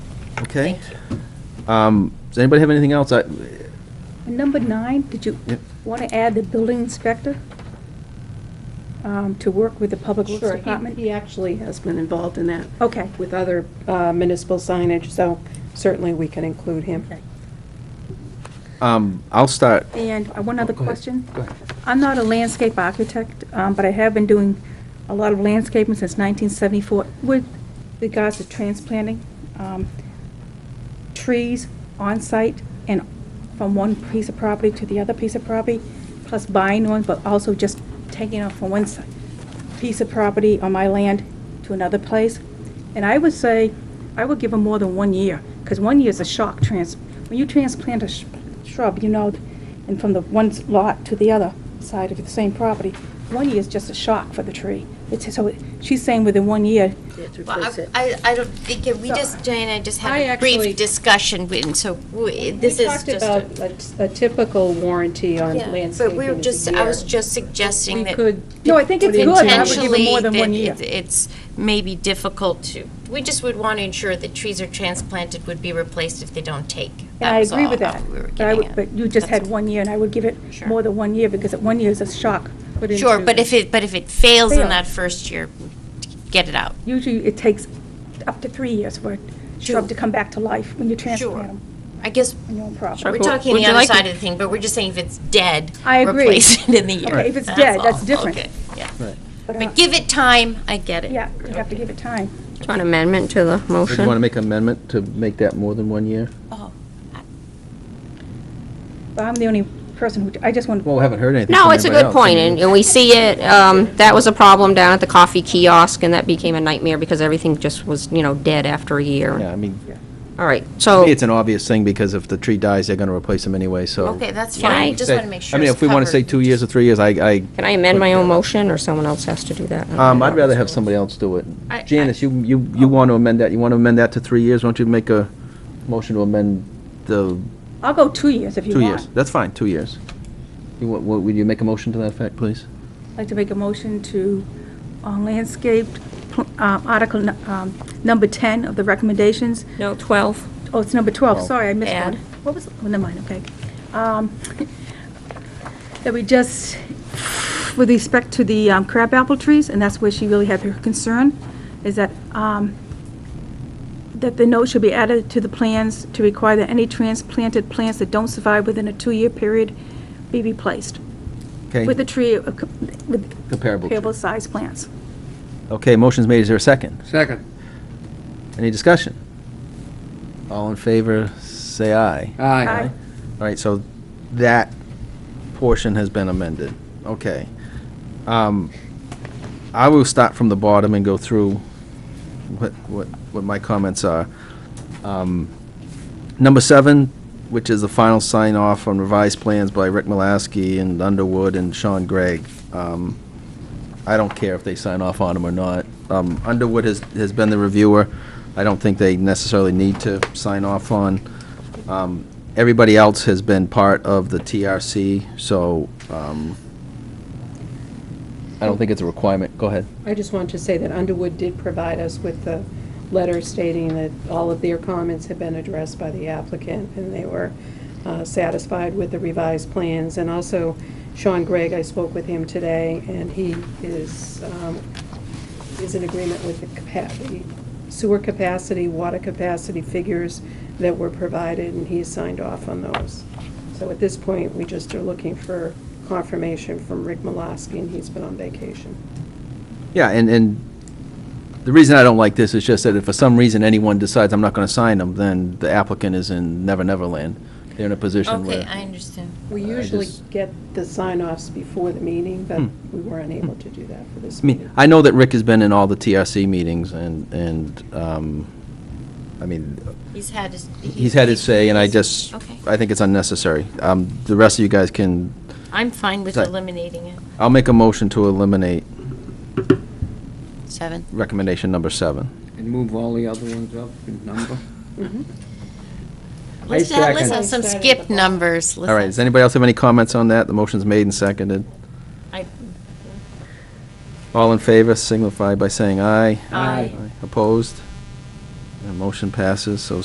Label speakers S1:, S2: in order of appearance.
S1: Okay?
S2: Thank you.
S1: Um, Does anybody have anything else? I-
S3: Number nine, did you
S1: Yep.
S3: want to add the building inspector um, to work with the public works
S4: Sure, he-
S3: department?
S4: He actually has been involved in that.
S3: Okay.
S4: With other uh, municipal signage, so certainly we can include him.
S3: Okay.
S1: um, I'll start.
S3: And uh, one other
S1: Oh, Go ahead.
S3: question?
S1: Go ahead.
S3: I'm not a landscape architect, um, but I have been doing a lot of landscaping since 1974 with regards to transplanting um, trees on-site and from one piece of property to the other piece of property, plus buying one, but also just taking off from one si- piece of property on my land to another place. And I would say, I would give them more than one year, because one year is a shock trans, when you transplant a sh- shrub, you know, and from the one s- lot to the other side of the same property, one year is just a shock for the tree. It's, so, she's saying within one year,
S2: Well, I- I, I don't think, it- we just, Jane, I just
S4: I
S2: had a brief
S4: actually-
S2: discussion, with- and so we- this is
S4: We
S2: just a.
S4: talked about a- a typical warranty on
S2: Yeah,
S4: landscaping
S2: But we
S4: is
S2: were
S4: a
S2: just, I was
S4: year.
S2: just suggesting
S4: We
S2: that.
S4: could
S3: No, I think it's
S4: put
S3: good.
S4: in
S3: I would give
S4: ten-
S3: them more
S2: potentially
S3: than one
S2: that
S3: year.
S2: it- it's maybe difficult to, we just would want to ensure that trees are transplanted would be replaced if they don't take.
S3: and I
S2: That was
S3: agree with
S2: all
S3: that.
S2: we were
S3: But I
S2: getting
S3: would-
S2: at.
S3: But you just
S2: That's-
S3: had one year, and I would give it
S2: Sure.
S3: more than one year, because at one year is a shock. put
S2: Sure,
S3: into-
S2: but if it, but if it fails in
S3: Fail.
S2: that first year, get it out.
S3: Usually, it takes up to three years for a shrub to come back to life when you transplant them.
S2: I guess,
S3: No problem.
S2: we're
S5: but
S2: talking
S5: would
S2: the
S5: you
S2: other
S5: like to-
S2: side of the thing, but we're just saying if it's dead,
S3: I agree.
S2: replace it in the year.
S3: Okay, if it's
S2: That's
S3: dead,
S2: all.
S3: that's different.
S2: Okay, yeah.
S3: But, uh,
S2: But give it time, I get it.
S3: Yeah, you have to give it time.
S6: An amendment to the
S1: Do
S6: motion?
S1: you want to make an amendment to make that more than one year?
S2: Oh,
S3: But I'm the only person who, I just want,
S1: Well, we haven't heard anything
S6: No,
S1: from
S6: it's a
S1: anybody
S6: good
S1: else. I
S6: point,
S1: mean,
S6: and and we see it, um, that was a problem down at the coffee kiosk, and that became a nightmare because everything just was, you know, dead after a
S1: Yeah, I
S6: year.
S1: mean,
S6: All right,
S1: to
S6: so,
S1: me, it's an obvious thing, because if the tree dies, they're going to replace them anyway, so.
S2: Okay, that's
S6: Yeah, I
S2: fine. Just
S1: Say-
S2: want to make sure.
S1: I mean,
S2: it's
S1: if we want to
S2: covered.
S1: say two years or three years, I, I,
S6: can I amend my own motion, or someone else has to do that?
S1: uh, um, I'd rather have somebody else do it.
S2: I- I-
S1: Janice, you, you, you want to amend that, you want to amend that to three years? Why don't you make a motion to amend the
S3: I'll go two years if you
S1: two
S3: want.
S1: years? That's fine, two years. You, wa- wa- would you make a motion to that effect, please?
S3: I'd like to make a motion to, on landscaped, pl- um, article nu- um, number 10 of the recommendations.
S6: No, 12?
S3: Oh, it's number 12, sorry, I missed
S2: Add.
S3: one. What was, oh, never mind, okay. Um, That we just, with respect to the um, crabapple trees, and that's where she really had her concern, is that, um, that the note should be added to the plans to require that any transplanted plants that don't survive within a two-year period be replaced
S1: Okay,
S3: with a tree, of co- with
S1: comparable. tree.
S3: comparable size plants.
S1: Okay, motion's made, is there a second?
S7: Second.
S1: Any discussion? All in favor, say aye. All
S7: Aye.
S1: right, so that portion has been amended. Okay. Um, I will start from the bottom and go through what, what, what my comments are. Um, Number seven, which is the final sign off on revised plans by Rick Malasky and Underwood and Sean Gregg. Um, I don't care if they sign off on them or not. Um, Underwood has, has been the reviewer. I don't think they necessarily need to sign off on. Um, Everybody else has been part of the TRC, so, um, I don't think it's a requirement. Go ahead.
S4: I just want to say that Underwood did provide us with the letter stating that all of their comments had been addressed by the applicant, and they were uh, satisfied with the revised plans. And also Sean Gregg, I spoke with him today, and he is, um, is in agreement with the capacity, sewer capacity, water capacity figures that were provided, and he signed off on those. So at this point, we just are looking for confirmation from Rick Malasky, and he's been on vacation.
S1: Yeah, and, and the reason I don't like this is just that if for some reason anyone decides I'm not gonna sign them, then the applicant is in Never Never Land. They're in a position where.
S2: Okay, I understand.
S4: We
S1: I
S4: usually
S1: just-
S4: get the sign-offs before the meeting, but
S1: Hmm.
S4: we were unable to do that for this
S1: I
S4: meeting.
S1: mean, I know that Rick has been in all the TRC meetings and, and, um, I mean,
S2: He's had his.
S1: he's had his say and I just,
S2: Okay.
S1: I think it's unnecessary. Um, the rest of you guys can,
S2: I'm fine with
S1: Sorry.
S2: eliminating it.
S1: I'll make a motion to eliminate
S2: Seven.
S1: recommendation number seven.
S7: And move all the other ones up in number.
S4: Mm-hmm.
S7: I
S2: Let's have, let's
S7: second.
S2: have some
S4: I started at
S2: skip
S4: the
S2: numbers.
S1: All right, does anybody else have any comments on that? The motion's made and seconded. All in favor signify by saying aye.
S2: Aye.
S1: Opposed? And motion passes, so